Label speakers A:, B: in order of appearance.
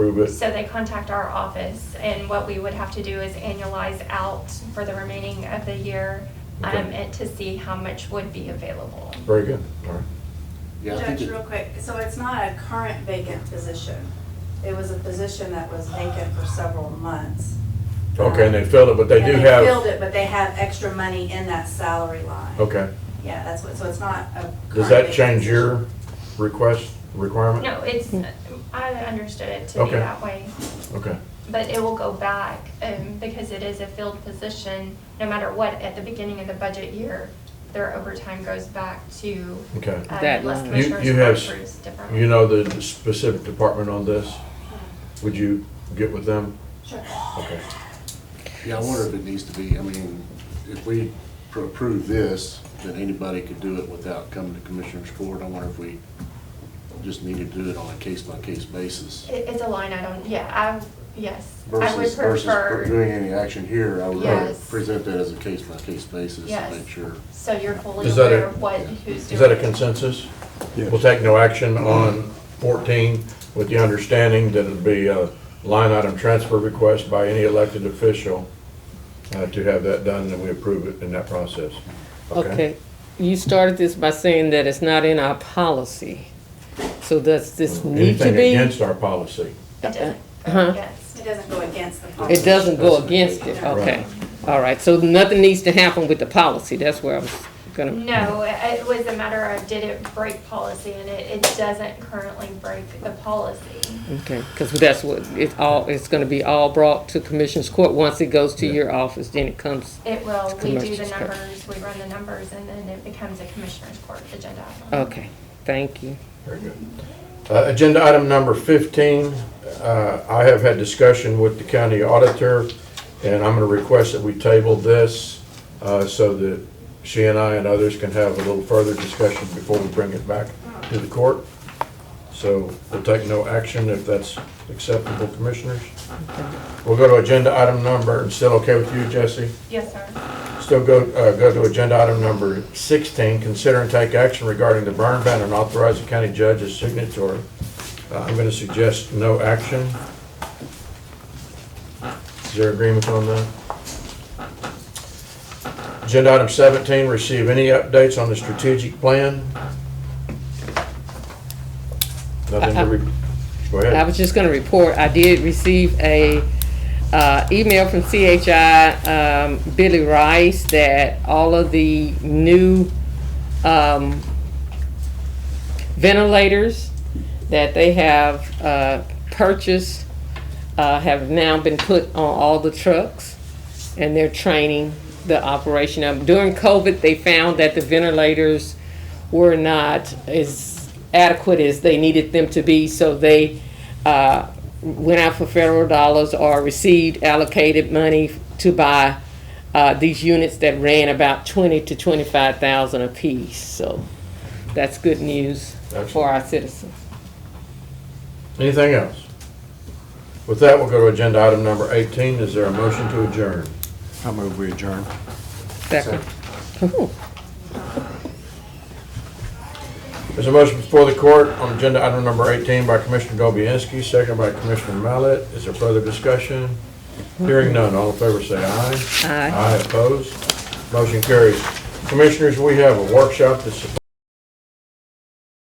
A: move it.
B: So they contact our office, and what we would have to do is annualize out for the remaining of the year, um,
A: Okay.
B: and to see how much would be available.
A: Very good, all right.
C: Yeah, I
D: Judge,
C: think it-
D: real quick, so it's not a current vacant position. It was a position that was vacant for several months.
A: Okay, and they filled it, but they
D: And
A: do have,
D: filled it, but Um, they have extra money in that salary line.
A: okay.
D: Yeah, that's what, so it's not a current
A: Does that
D: vacant
A: change your
D: position.
A: request, requirement?
B: No, it's,
E: Hmm.
B: I understood it to be
A: Okay.
B: that way,
A: Okay,
B: but it will go back, um, because it is a filled position, no matter what, at the beginning of the budget year, their overtime goes back to,
A: okay.
B: uh,
E: That
B: unless
E: line. You-
B: commissioners
A: you have-
B: approves differently.
A: You know the specific department on this? Would you get with them?
D: Sure.
A: Okay.
C: yeah, I wonder if it needs to be, I mean, if we pr- approve this, then anybody could do it without coming to Commissioners Court. I wonder if we just need to do it on a case-by-case basis.
B: It, it's a line item, yeah, I, yes, I would
C: Versus, versus pr-
B: prefer,
C: doing any action here, I would rather
B: Yes.
C: present that as a case-by-case basis to
B: Yes.
C: make sure.
B: so you're fully
A: Is that a-
B: aware of what, who's doing.
A: Is that a
B: it.
A: consensus?
F: Yes.
A: We'll take no action on 14 with the understanding that it'd be a line item transfer request by any elected official uh, to have that done, and we approve it in that process.
E: Okay, you started this by saying that it's not in our policy. So does this need to
A: Anything
E: be?
A: against our policy.
B: It doesn't
E: Uh-huh.
B: go against.
D: It doesn't go against the policy.
E: It doesn't go
C: That's-
E: against it,
D: Right.
E: okay. All right, so nothing needs to happen with the policy, that's where I was gonna,
B: No, it it was a matter of did it break policy, and it, it doesn't currently break the policy.
E: okay, because that's what, it's all, it's gonna be all brought to Commissioners Court. Once it goes to your office, then it comes,
B: It will, we do the
E: Commissioner's court.
B: numbers, we run the numbers, and then it becomes a commissioner's court agenda. item.
E: okay, thank you.
A: Very good. Uh, Agenda item number 15, uh, I have had discussion with the county auditor, and I'm going to request that we table this uh, so that she and I and others can have a little further discussion before we bring it back to the court. So we'll take no action if that's acceptable, commissioners. We'll go to agenda item number, still okay with you, Jesse?
B: Yes, sir.
A: Still go, uh, go to agenda item number 16, consider and take action regarding the burn ban and authorize the county judge as signatory. Uh, I'm going to suggest no action. Is there agreement on that? Agenda item 17, receive any updates on the strategic plan? Nothing to re, go
E: I
A: ahead.
E: was just gonna report, I did receive a, uh, email from CHI, um, Billy Rice, that all of the new, um, ventilators that they have, uh, purchased, uh, have now been put on all the trucks, and they're training the operation of, during COVID, they found that the ventilators were not as adequate as they needed them to be, so they uh, went out for federal dollars or received allocated money to buy uh, these units that ran about twenty to twenty-five thousand apiece. So that's good news for our citizens.
A: Anything else? With that, we'll go to agenda item number 18. Is there a motion to adjourn?
F: I move we adjourn.
E: Second. Ooh.
A: There's a motion before the court on agenda item number 18 by Commissioner Dobianski, second by Commissioner Mallett. Is there further discussion? Hearing none, all in favor say aye.
E: Aye.
A: Aye opposed. Motion carries. Commissioners, we have a workshop that's supposed